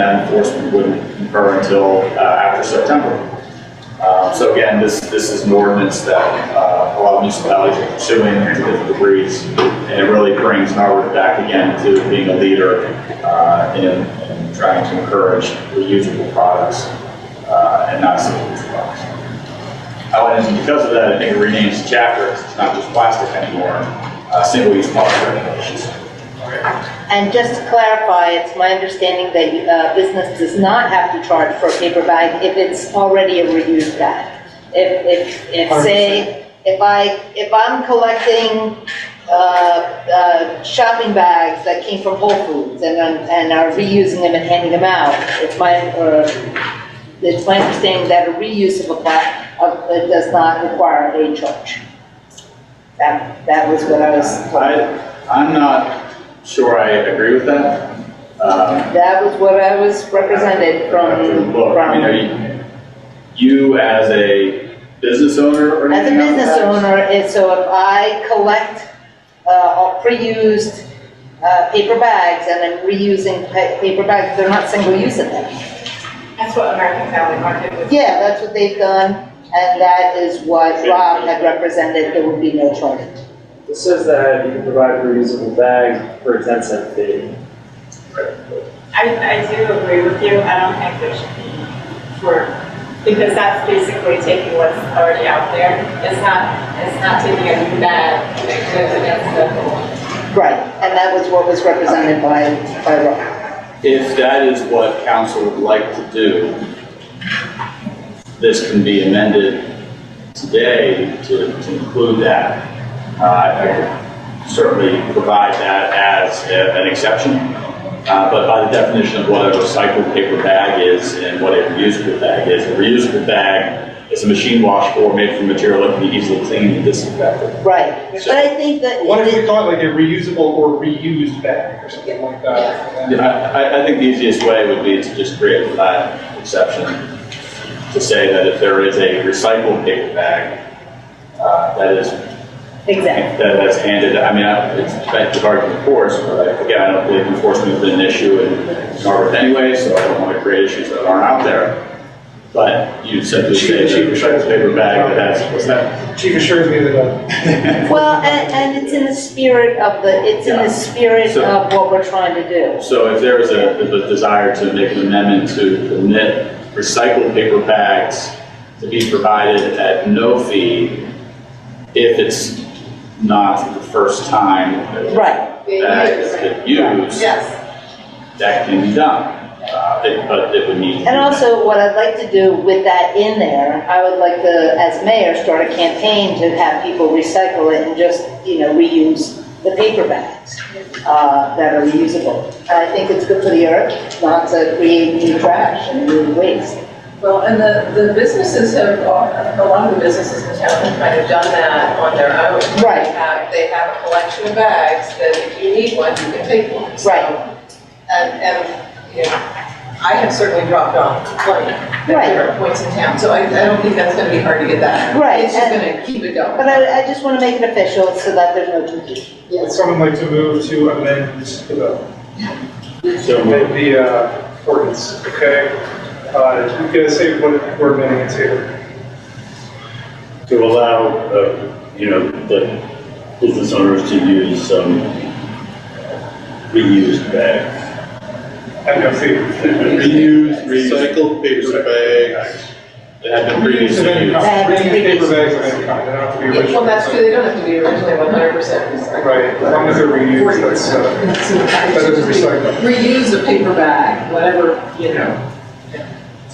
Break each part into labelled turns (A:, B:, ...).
A: that enforcement wouldn't occur until uh, after September. Uh, So again, this, this is an ordinance that uh, a lot of municipalities are pursuing to different degrees, and it really brings Norwood back again to being a leader uh, in in trying to encourage reusable products uh, and not single-use products. Oh, and because of that, I think it renames the chapter, it's not just plastic anymore, uh, single-use product regulations.
B: And just to clarify, it's my understanding that uh, business does not have to charge for a paper bag if it's already a reused bag. If, if, if, say, if I, if I'm collecting uh, uh, shopping bags that came from Whole Foods and, I'm- and are reusing them and handing them out, it's my, or, it's my understanding that a reuse of a pla- of, it does not require a charge. That, that was what I was.
A: I, I'm not sure I agree with that. Um,
B: That was what I was represented
A: I have to
B: from,
A: look. I mean, are
B: from.
A: you, you as a business owner or
B: As a
A: anything like
B: business
A: that?
B: owner, it's, so if I collect, uh, all pre-used, uh, paper bags and I'm reusing pa- paper bags, they're not single-use in them.
C: That's what American Family Market was.
B: Yeah, that's what they've done, and that is what Rob had represented, there would be no charge.
D: It says that you can provide reusable bags for a ten cent fee.
C: I, I do agree with you, I don't think there should be for, because that's basically taking what's already out there. It's not, it's not taking a new bag, it goes against the law.
B: Right, and that was what was represented by, by Rob.
A: If that is what council would like to do, this can be amended today to to include that. Uh, I could Certainly provide that as a- an exception, Uh, but by the definition of what a recycled paper bag is and what a reusable bag is, a reusable bag is a machine washable made from material that can be easily cleaned and disinfected.
B: Right, but I think that.
E: What if we thought like a reusable or reused bag or something like that?
A: Yeah, I, I- I think the easiest way would be to just create that exception to say that if there is a recycled paper bag, uh, that is,
B: Exactly.
A: that that's handed, I mean, I- it's, it's hard to enforce, but I- again, I don't believe enforcement has been an issue in Norwood anyway, so I don't want to create issues that aren't out there. But you simply say that recycled paper bag, but that's, what's that?
E: Chief assures me that uh,
B: Well, and, and it's in the spirit of the, it's in
A: Yeah.
B: the spirit
A: So-
B: of what we're trying to do.
A: So if there was a, a desire to make an amendment to permit recycled paper bags to be provided at no fee if it's not the first time that the
B: Right,
A: bag is been used,
C: Yes.
A: that can be done. Uh, it- But it would need. to be-
B: and also what I'd like to do with that in there, I would like to, as mayor, start a campaign to have people recycle it and just, you know, reuse the paper bags, uh, that are reusable. And I think it's good for the earth, not to create new trash and new waste.
F: Well, and the, the businesses have, a lot of the businesses in town have kind of done that on their own.
B: Right.
F: They have, they have a collection of bags that if you need one, you can take one. So,
B: Right.
F: And, and, you know, I have certainly dropped off plenty at
B: Right.
F: different points in town, so I, I don't think that's gonna be hard to get that.
B: Right,
F: It's just
B: and-
F: gonna keep it going.
B: But I, I just wanna make it official so that there's no confusion.
E: would someone like to move to amend the,
A: So moved.
E: amend the uh, ordinance, okay? Uh, You gotta say what we're amending it to.
G: to allow, uh, you know, the business owners to use some reused bags.
E: I know, see.
G: Reused, recycled paper bags that have been
E: Reuse of
G: previously
E: any
G: used.
E: kind,
B: Bags,
E: reuse paper
B: reuse.
E: bags of any kind, they don't have to be original.
F: Well, that's true, they don't have to be originally one hundred percent recycled.
E: Right, as long as they're reused, that's, uh, that is recyclable.
F: Reuse a paper bag, whatever, you know,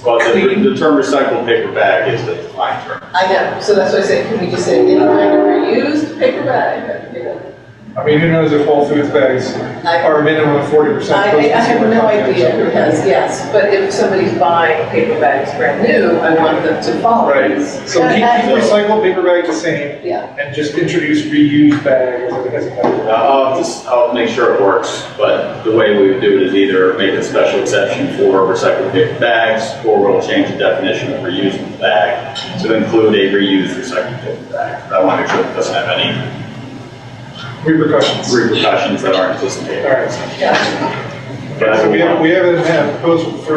A: Well, the, the term recycled paper bag is the defined term.
F: I know, so that's why I say, can we just say, any kind of reused paper bag, you know?
E: I mean, who knows if Whole Foods bags are a minimum of forty percent.
F: I, I have no idea, because, yes, but if somebody's buying paper bags brand new, I want them to follow.
E: Right,
F: these.
E: so keep keep recycled paper bag the same,
F: Yeah,
E: and just introduce reused bag as a, as a category.
A: Uh, I'll just, I'll make sure it works, but the way we would do it is either make a special exception for recycled paper bags, or we'll change the definition of reusable bag to include a reused recycled paper bag. I want to make sure it doesn't have any
E: repercussions.
A: repercussions that aren't anticipated.
E: All right,
F: yeah.
G: But I
E: So we
G: don't want-
E: haven't, we haven't had a proposal for